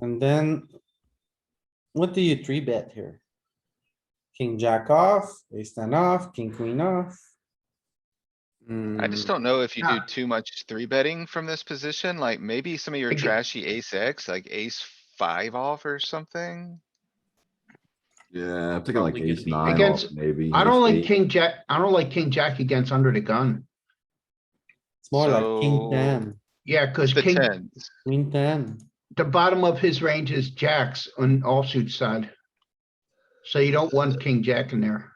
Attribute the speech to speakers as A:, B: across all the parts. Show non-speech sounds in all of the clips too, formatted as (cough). A: And then. What do you three bet here? King jack off, ace ten off, king queen off.
B: I
C: Mm.
B: just
A: Hmm,
B: don't know if you do
C: Yeah.
B: too much three betting from this position, like maybe some of your
C: Exa-
B: trashy ace X, like ace five off or something.
D: Yeah, I'm thinking like
E: Probably gonna
D: ace
E: be-
D: nine off,
C: Against-
D: maybe.
C: I don't like
D: ace eight.
C: king jack, I don't like king jack against under the gun.
A: It's more like
B: So-
A: king ten,
C: Yeah, cuz
B: The
C: king,
B: tens,
A: queen ten.
C: the bottom of his range is jacks on offsuit side. So you don't want king jack in there.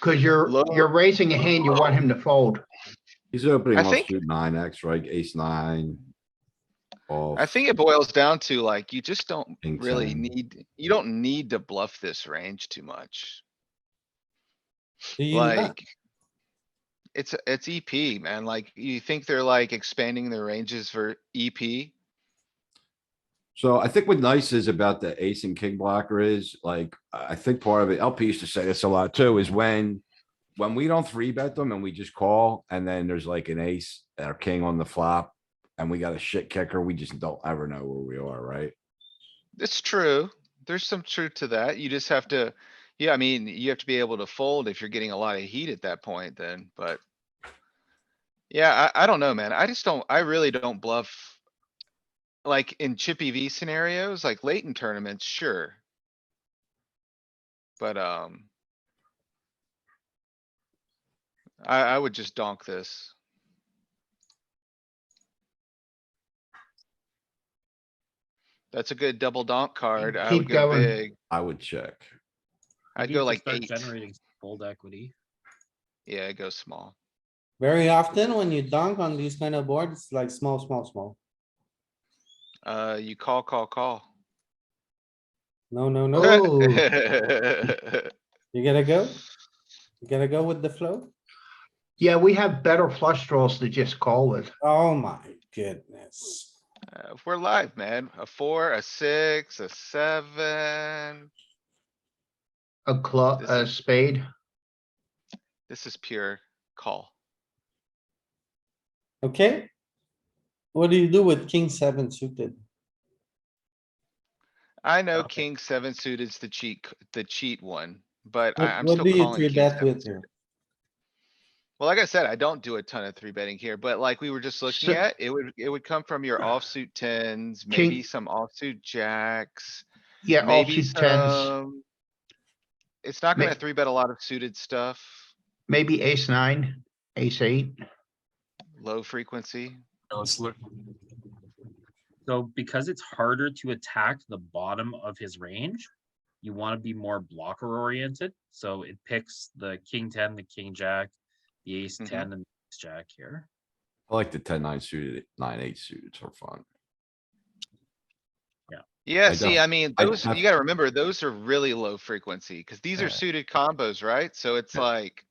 C: Cuz you're,
B: Low-
C: you're raising a hand, you want him
B: (laughs)
C: to fold.
D: He's opening
B: I think-
D: offsuit nine X, right? Ace nine. Off.
B: I think it boils down to like, you just don't
D: King
B: really
D: ten.
B: need, you don't need to bluff this range too much,
A: Do you not-
B: like. It's, it's EP, man, like, you think they're like expanding their ranges for E EP?
D: So I think what nice is about the ace and king blocker is like, I I think part of it, LP used to say this a lot too, is when. When we don't three bet them and we just call and then there's like an ace or king on the flop. And we got a shit kicker, we just don't ever know where we are, right?
B: It's true. There's some truth to that. You just have to, yeah, I mean, you have to be able to fold if you're getting a lot of heat at that point then, but. Yeah, I, I don't know, man. I just don't, I really don't bluff. Like in chippy V scenarios, like late in tournaments, sure. But, um. I, I would just donk this. That's a good double donk card. I
C: keep
B: would go
C: going.
B: big.
D: I would check.
B: I'd
E: need to
B: go like
E: start
B: eight.
E: Generating some fold equity.
B: Yeah, go small.
A: Very often when you dunk on these kind of boards, it's like small, small, small.
B: Uh, you call, call, call. (laughs)
C: (laughs)
A: No, no, no.
C: Oh.
A: You gotta go. You gotta go with the flow.
C: Yeah, we have better flush draws to just call with.
A: Oh my goodness.
B: Uh, We're live, man. A four, a six, a seven.
C: A club,
B: This
C: a spade.
B: This is pure call.
A: Okay? What do you do with king seven suited?
B: I know
E: Okay.
B: king seven suited's the cheat, c- the cheat one, but I,
A: What
B: I'm
A: what
B: still
A: do you
B: calling.
A: three
B: king
A: bet
B: seven
A: with
B: suited.
A: here?
B: Well, like I said, I don't do a ton of three betting here, but like we were just looking
C: So-
B: at, it would, it would come from
C: (sighs)
B: your offsuit tens, maybe
C: King-
B: some offsuit jacks.
C: Yeah,
B: Maybe
C: offsuit tens,
B: some. It's not
C: May-
B: gonna three bet a lot of suited stuff,
C: maybe ace nine, ace eight.
B: low frequency.
E: Let's look. So because it's harder to attack the bottom of his range, you want to be more blocker oriented. So it picks the king ten, the king jack, the ace
B: Mhm.
E: ten, and the ace jack here.
D: I like the ten nine suited, nine eight suited for fun.
B: Yeah,
D: I
B: see,
D: don't-
B: I mean,
D: I
B: those,
D: have-
B: you gotta remember, those are really low frequency, cuz these
D: Yeah.
B: are suited combos, right? So it's like,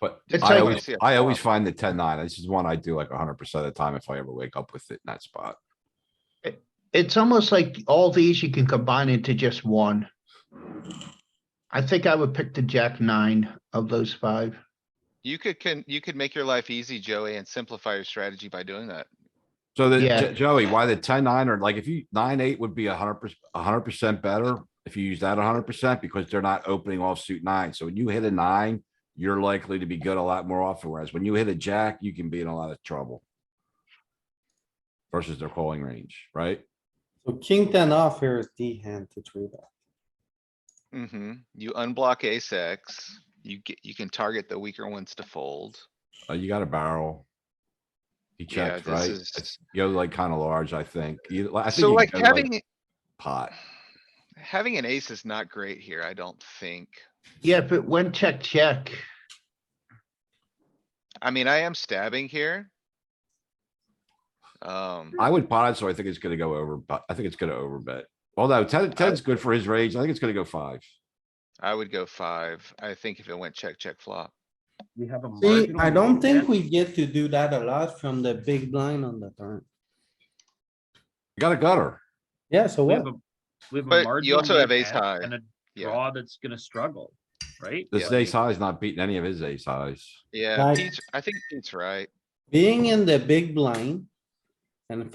D: But
C: It's
D: I
C: like-
D: always,
B: Yeah.
D: I always find the ten nine, this is one I do like hundred percent of the time if I ever wake up with it in that spot.
C: It's almost like all these you can combine into just one. I think I would pick the jack nine of those five.
B: you could, can, you could make your life easy, Joey, and simplify your strategy by doing that.
D: So the,
C: Yeah.
D: Jo- Joey, why the ten nine or like if you, nine eight would be a hundred percent, a hundred percent better if you use that a hundred percent because they're not opening offsuit nine. So when you hit a nine, you're likely to be good a lot more often, whereas when you hit a jack, you can be in a lot of trouble. Versus their calling range, right?
A: So king ten off here is the hand to three bet.
B: Mm-hmm. You unblock ace X, you get, you can target the weaker ones to fold.
D: Uh, you got a barrel. He
B: Yeah,
D: checks,
B: this
D: right?
B: is,
D: You go like kind of large, I think. You, I think.
B: so
D: you
B: like
D: go,
B: having,
D: Pot.
B: having an ace is not great here, I don't think.
C: Yeah, if it went check, check,
B: I mean, I am stabbing here. Um,
D: I would pot it, so I think it's gonna go over, but I think it's gonna overbet. Although ten, ten's good for his range. I think it's gonna go five.
B: I would go five. I think if it went check, check flop.
E: We have a.
A: See,
E: marginal
A: I don't think
E: advantage.
A: we get to do that a lot from the big blind on the turn.
D: You Got a gutter.
A: Yeah, so
E: We
A: what?
E: have a- we have a
B: But you
E: marginal
B: also have ace
E: advantage
B: high.
E: And a
B: Yeah.
E: draw that's gonna struggle, right?
D: This
B: Yeah.
D: ace high is not beating any of his ace highs.
B: Yeah,
A: Guys-
B: Pete's, I think Pete's right.
A: Being in the big blind and